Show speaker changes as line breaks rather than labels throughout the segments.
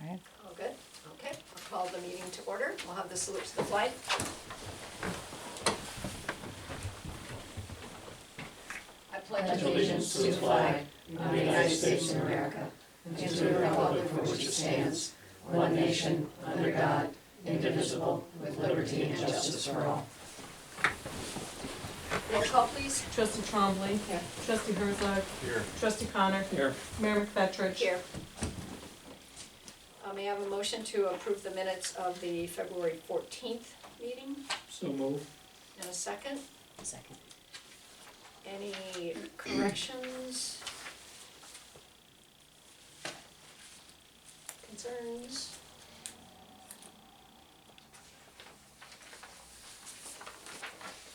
All right.
All good? Okay, I'll call the meeting to order. We'll have the salute to the flag. I pledge allegiance to the flag of the United States of America and to the republic for which it stands, one nation, under God, indivisible, with liberty and justice for all. Roll call, please.
Trustee Trombley.
Here.
Trustee Herzog.
Here.
Trustee Connor.
Here.
Mayor McFetrich.
Here. Uh, May I have a motion to approve the minutes of the February 14th meeting?
So move.
And a second?
Second.
Any corrections? Concerns?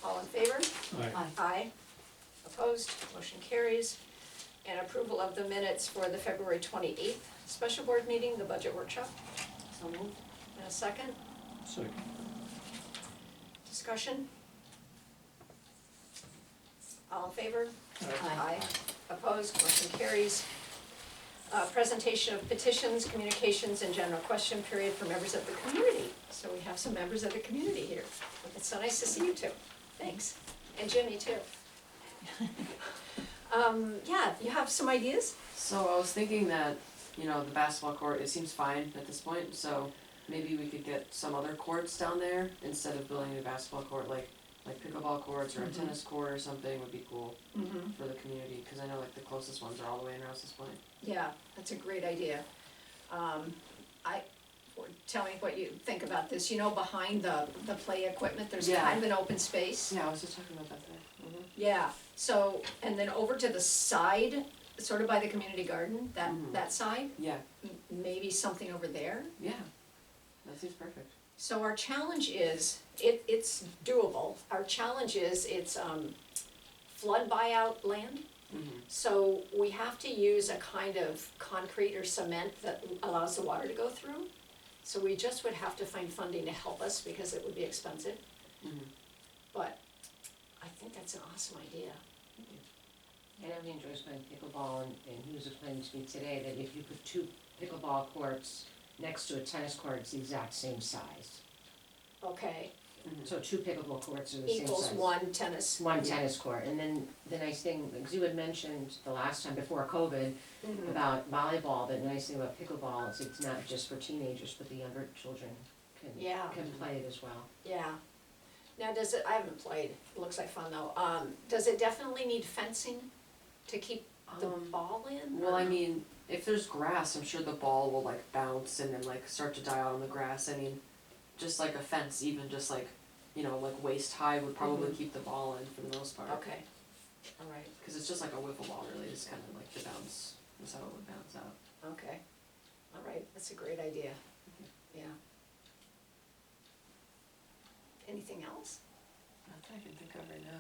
All in favor?
Aye.
Aye. Opposed, motion carries. And approval of the minutes for the February twenty-eighth special board meeting, the budget workshop. So moved. And a second,
Second.
discussion? All in favor?
Aye.
Opposed, motion carries. Uh, presentation of petitions, communications, and general question period for members of the community. So we have some members of the community here. It's so nice to see you two. Thanks. And Jimmy too. Um, yeah, you have some ideas?
So I was thinking that, you know, the basketball court, it seems fine at this point, so maybe we could get some other courts down there instead of building a basketball court, like, like pickleball courts or a tennis court or something would be cool
Mm-hmm.
for the community, cause I know like the closest ones are all the way in Rouse's Point.
Yeah, that's a great idea. Um, I, or tell me what you think about this. You know, behind the, the play equipment, there's
Yeah.
kind of an open space.
Yeah, I was just talking about that today.
Yeah, so, and then over to the side, sort of by the community garden, that,
Mhm.
that side,
Yeah,
m- maybe something over there.
yeah, that seems perfect.
So our challenge is, it, it's doable, our challenge is, it's, um, flood buyout land.
Mhm.
So we have to use a kind of concrete or cement that allows the water to go through. So we just would have to find funding to help us because it would be expensive.
Mhm.
But I think that's an awesome idea.
I know he enjoys playing pickleball, and, and he was explaining to me today that if you put two pickleball courts next to a tennis court, it's the exact same size.
Okay,
mm-hmm.
So two pickleball courts are the same size.
equals one tennis.
One tennis court, and then the nice thing, because you had mentioned the last time before COVID
Mhm.
about volleyball, but the nice thing about pickleball is it's not just for teenagers, but the younger children can,
Yeah.
can play it as well.
Yeah. Now, does it, I haven't played, It looks like fun though, um, does it definitely need fencing to keep the
Um,
ball in?
Well,
or-
I mean, if there's grass, I'm sure the ball will like bounce and then like start to die out on the grass. I mean, just like a fence, even just like, you know, like waist high would probably keep the ball in for the most part.
Okay, alright,
Because it's just like a wiffle ball, really. It's kind of like the bounce is how it would bounce out.
okay, alright, that's a great idea, yeah. Anything else?
Not that I can think of right now.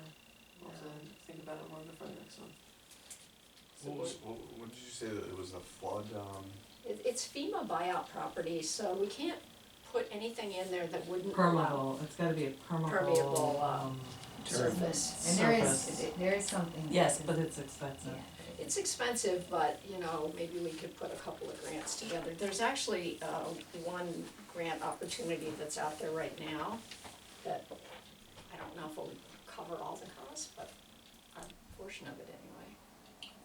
We'll have to think about it more before the next one.
What was, what, what did you say that it was the flood, um,
It, it's FEMA buyout property, so we can't put anything in there that wouldn't allow
permeable, it's gotta be a
Permeable,
permeable,
uh,
um,
surface.
And there
Surface.
is, there is something.
yes,
that-
but it's expensive.
Yeah.
It's expensive, but, you know, maybe we could put a couple of grants together. There's actually, uh, one grant opportunity that's out there right now that I don't know if it would cover all the costs, but a portion of it anyway.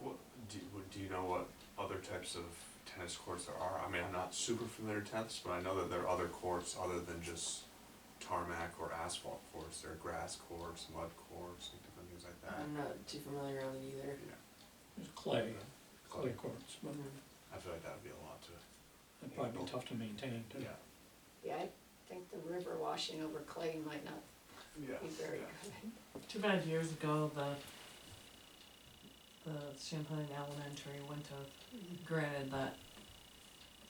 what, do, what- do you know what other types of tennis courts there are? I mean, I'm not super familiar with tennis, but I know that there are other courts other than just tarmac or asphalt courts, there are grass courts, mud courts, and different things like that.
I'm not too familiar on it either.
There's clay, clay
Clay.
courts, but
Mhm.
I feel like that would be a lot to,
that'd probably be tough to maintain too.
yeah,
Yeah, I think the river washing over Clay might not
yeah,
be very
yeah.
good.
Too bad years ago, the, the Champlain Elementary went to, granted that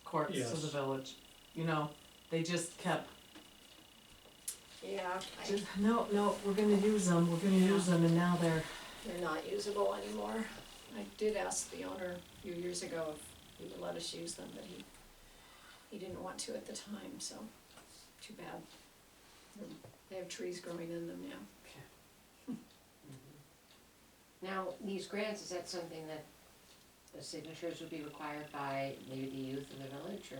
courts to the
Yes.
village, you know, they just kept,
Yeah, I-
just, no, no, we're gonna use them, we're gonna use them, and now they're
they're not usable anymore. I did ask the owner a few years ago if he would let us use them, but he, he didn't want to at the time, so, too bad. They have trees growing in them now.
Now, these grants, is that something that the signatures would be required by maybe the youth of the village, or